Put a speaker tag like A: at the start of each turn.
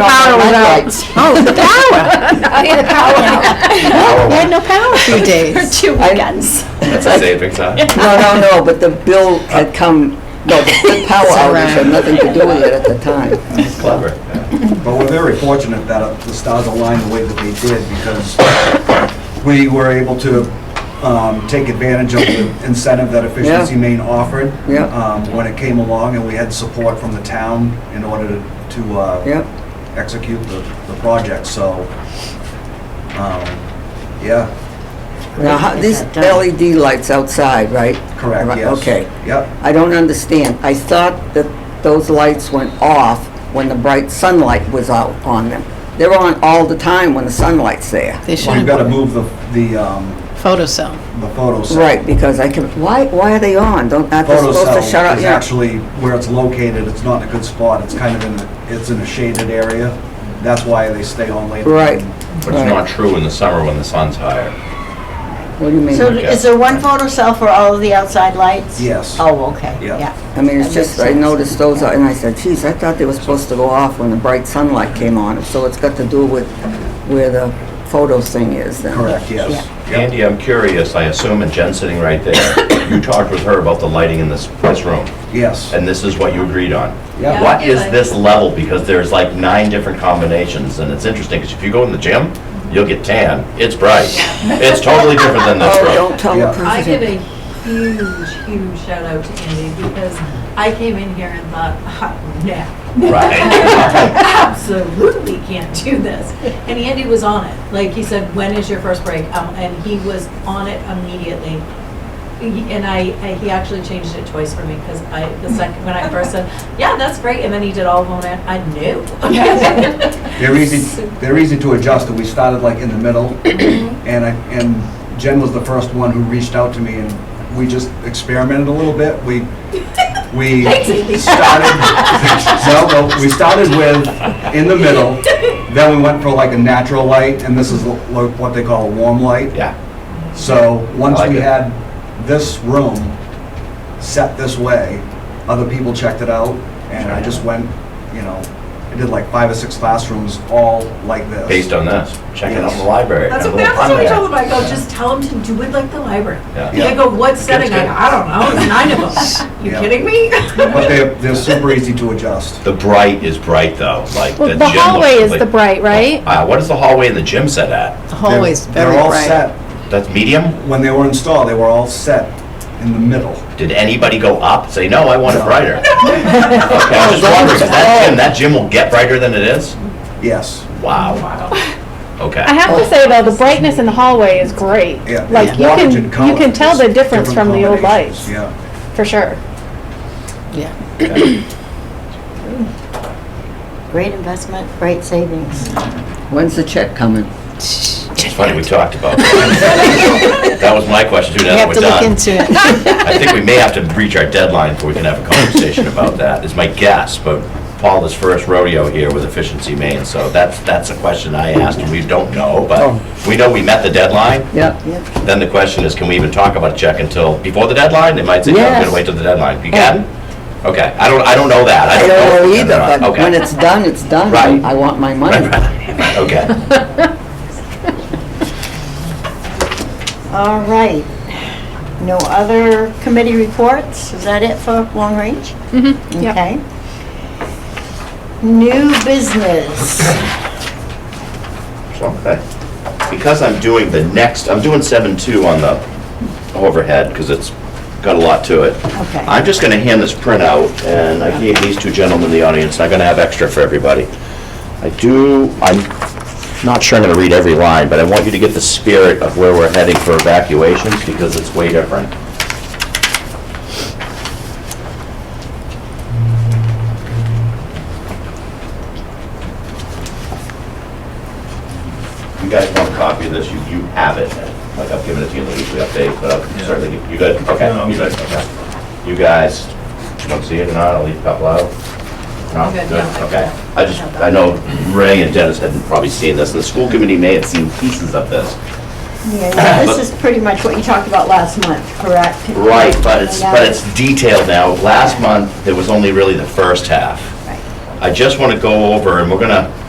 A: Power was out.
B: Oh, the power. We had no power for days.
C: Two weekends.
D: That's a savings, huh?
A: No, no, no, but the bill had come, no, the the power
B: It's
A: outage had
B: around.
A: nothing to do with it at the time.
D: Clever.
E: But we're very fortunate that uh, the stars aligned the way that they did because we were able to um, take advantage of the incentive that Efficiency
A: Yeah.
E: Maine offered
A: Yeah.
E: um, when it came along, and we had support from the town in order to to, uh,
A: Yep.
E: execute the the project, so, um, yeah,
A: Now, how- these LED lights outside, right?
E: correct,
A: Right,
E: yes.
A: Okay.
E: Yep,
A: I don't understand. I thought that those lights went off when the bright sunlight was out on them. They're on all the time when the sunlight's there.
B: They
E: we've
B: should
E: got to
B: have
E: move the the um,
B: photo cell.
E: the photo cell.
A: Right, because I can, why, why are they on? Don't, aren't they supposed to shut
E: Photocell
A: up?
E: is
A: Yeah.
E: actually where it's located, it's not in a good spot, it's kind of in, a- it's in a shaded area. That's why they stay on later.
A: Right.
D: But it's not true in the summer when the sun's higher.
A: What do you mean?
C: So is there one photo cell for all of the outside lights?
E: Yes.
C: Oh, okay,
E: Yeah.
C: yeah.
A: I mean, it's
C: That
A: just,
C: makes
A: I
C: sense.
A: noticed those, are- and I said, geez, I thought they were supposed to go off when the bright sunlight came on. So it's got to do with where the photo thing is then.
E: Correct, yes.
D: Andy, I'm curious, I assume, and Jen's sitting right there, you talked with her about the lighting in this, this room,
E: Yes.
D: and this is what you agreed on.
E: Yeah.
D: What is this level? Because there's like nine different combinations, and it's interesting, because if you go in the gym,
F: Mm-hmm.
D: you'll get tan, it's bright. It's totally different than this
A: Oh,
D: room.
A: don't tell the
E: Yeah.
F: I give
A: president.
F: a huge, huge shout out to Andy because I came in here and thought, oh, no,
D: Right.
F: absolutely can't do this. And Andy was on it. Like he said, when is your first break? Um, and he was on it immediately. He- And I, I- he actually changed it twice for me because I, the second, when I first said, yeah, that's great. And then he did all of them and I knew.
E: They're easy, they're easy to adjust, and we started like in the middle.
A: Mm-hmm.
E: And I, and Jen was the first one who reached out to me, and we just experimented a little bit. We, we started, no, no, we started with in the middle, then we went for like a natural light, and this is lo- what they call a warm light.
D: Yeah,
E: So, once
D: I like
E: we
D: it.
E: had this room set this way, other people checked it out, and I just went, you know, I did like five or six classrooms all like this.
D: based on this, check it out in the library.
F: That's
D: have
F: what,
D: a little
F: that's what I
D: fun
F: told him,
D: there.
F: I go, just tell him to do it like the library.
D: Yeah.
F: They go, what setting? I
D: good.
F: go, I don't know, there's nine of them. You
E: Yeah.
F: kidding me?
E: But they're, they're super easy to adjust.
D: The bright is bright, though, like the
G: Well,
D: gym.
G: the hallway
D: looks
G: is
D: like-
G: the bright, right?
D: Uh, what is the hallway and the gym set at?
B: The hallway's
E: They're-
B: very
E: They're all
B: bright.
E: set,
D: That's medium?
E: when they were installed, they were all set in the middle.
D: Did anybody go up, and say, no, I want it
E: No.
D: brighter? Okay, I'm just wondering, 'cause that gym, that gym will get brighter than it is?
E: Yes,
D: Wow. Okay.
G: I have to say though, the brightness in the hallway is great.
E: yeah.
G: Like
E: it's
G: you can,
E: wattage and
G: you can
E: colors,
G: tell the difference
E: different
G: from the old
E: combinations,
G: lights,
E: Yeah,
G: for sure.
B: Yeah.
H: Great investment, great savings.
A: When's the check coming?
D: It's funny, we talked about that. That was my question too,
B: You
D: now that
B: have
D: we're
B: to look
D: done.
B: into it.
D: I think we may have to reach our deadline before we can have a conversation about that, is my guess, but Paul is first rodeo here with Efficiency Maine, so that's, that's a question I asked, and we don't
A: Oh.
D: know, but we know we met the deadline.
A: Yeah.
D: Then the question is, can we even talk about a check until, before the deadline? They might say, no, we're
A: Yes. Oh.
D: gonna wait till the deadline. You can? Okay, I don't, I don't know that.
A: I
D: I
A: don't know
D: if they're
A: either,
D: not.
A: but
D: Okay.
A: when it's done, it's done.
D: Right.
A: I I want my money.
D: Okay.
H: All right. No other committee reports? Is that it for long range? Mm-hmm,
G: yep.
H: Okay. New business.
D: Okay. Because I'm doing the next, I'm doing seven two on the overhead, because it's got a lot to it.
H: Okay.
D: I'm just gonna hand this printout, and I gave these two gentlemen the audience, I'm gonna have extra for everybody. I do, I'm not sure I'm gonna read every line, but I want you to get the spirit of where we're heading for evacuations, because it's way different. You guys want a copy of this, you, you have it, like I've given it to you in the weekly update, but I'll certainly, give- you good? Okay, you good, okay. You guys, you don't see it or not, I'll leave a couple out. No,
F: Good,
D: good,
F: no, I
D: okay.
F: don't.
D: I just, I know Ray and Dennis hadn't probably seen this, and the school committee may have seen pieces of this.
H: Yeah, now This is pretty much what you talked about last month, correct?
D: Right, but it's,
H: Yeah.
D: but it's detailed now. Last month, there was only really the first half. I just want to go over, and we're gonna,